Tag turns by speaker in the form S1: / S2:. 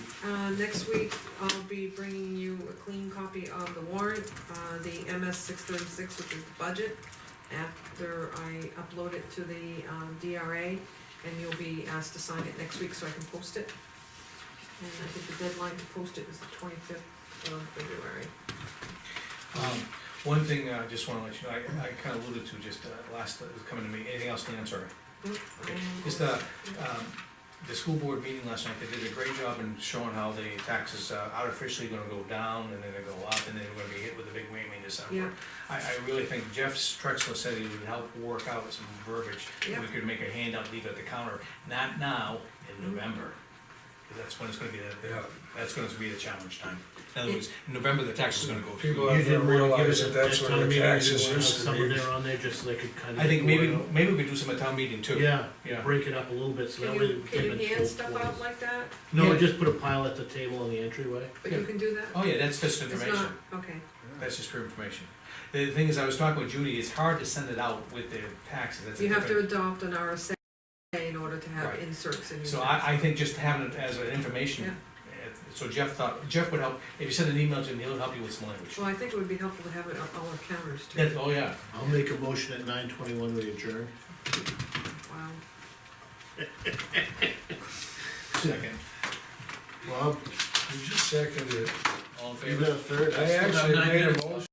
S1: Uh, next week, I'll be bringing you a clean copy of the warrant, uh, the MS six thirty-six, which is the budget. After I upload it to the, um, DRA, and you'll be asked to sign it next week so I can post it. And I think the deadline to post it is the twenty-fifth of February.
S2: Um, One thing I just wanna let you know, I, I kinda alluded to just uh, last, uh, coming to me, anything else, Lance, sorry. Okay, Just, uh, um, the school board meeting last night, they did a great job in showing how the taxes are artificially gonna go down, and then they go up, and then we're gonna be hit with a big whammy in
S1: Yeah.
S2: December. I, I really think Jeff Strexler said he would help work out some verbiage,
S1: Yeah.
S2: we could make a handout, leave it at the counter, not now, in
S1: Mhm.
S2: November. 'Cause that's when it's gonna be the,
S3: Yeah.
S2: that's gonna be the challenge time. In other words, in November, the tax is gonna go through.
S3: People
S4: You
S3: have to
S4: didn't wanna give
S3: realize
S4: us a
S3: that that's
S4: town
S3: where the
S4: meeting, you
S3: taxes
S4: wanna have
S3: used to
S4: someone
S3: be.
S4: there on there just so they could kind of.
S2: I think maybe, maybe we could do some at town meeting too.
S4: Yeah,
S2: Yeah.
S4: break it up a little bit so
S1: Can
S4: that way.
S1: you,
S4: we
S1: can
S4: give
S1: you
S4: it
S1: hand
S4: both
S1: stuff
S4: ways.
S1: out like that?
S4: No,
S2: Yeah.
S4: just put a pile at the table in the entryway.
S1: But you
S2: Yeah.
S1: can do that?
S2: Oh yeah, that's just
S1: It's
S2: information,
S1: not, okay,
S2: that's just for information. The thing is, I was talking with Judy, it's hard to send it out with the taxes, that's a
S1: you have to
S2: different.
S1: adopt an RSA in order to have
S2: Right.
S1: inserts in your.
S2: So I, I think just having it as an information, uh, so Jeff thought, Jeff would help, if you send an email to him, he'll help you with some language.
S1: Well, I think it would be helpful to have it on all our counters too.
S2: That, oh yeah,
S4: I'll make a motion at nine twenty-one, we adjourn.
S1: Wow.
S2: second,
S4: Bob,
S3: You just seconded it.
S2: all in
S4: you
S2: favor?
S4: got a third?
S3: I actually
S2: nine
S3: made a
S2: minutes.
S3: motion.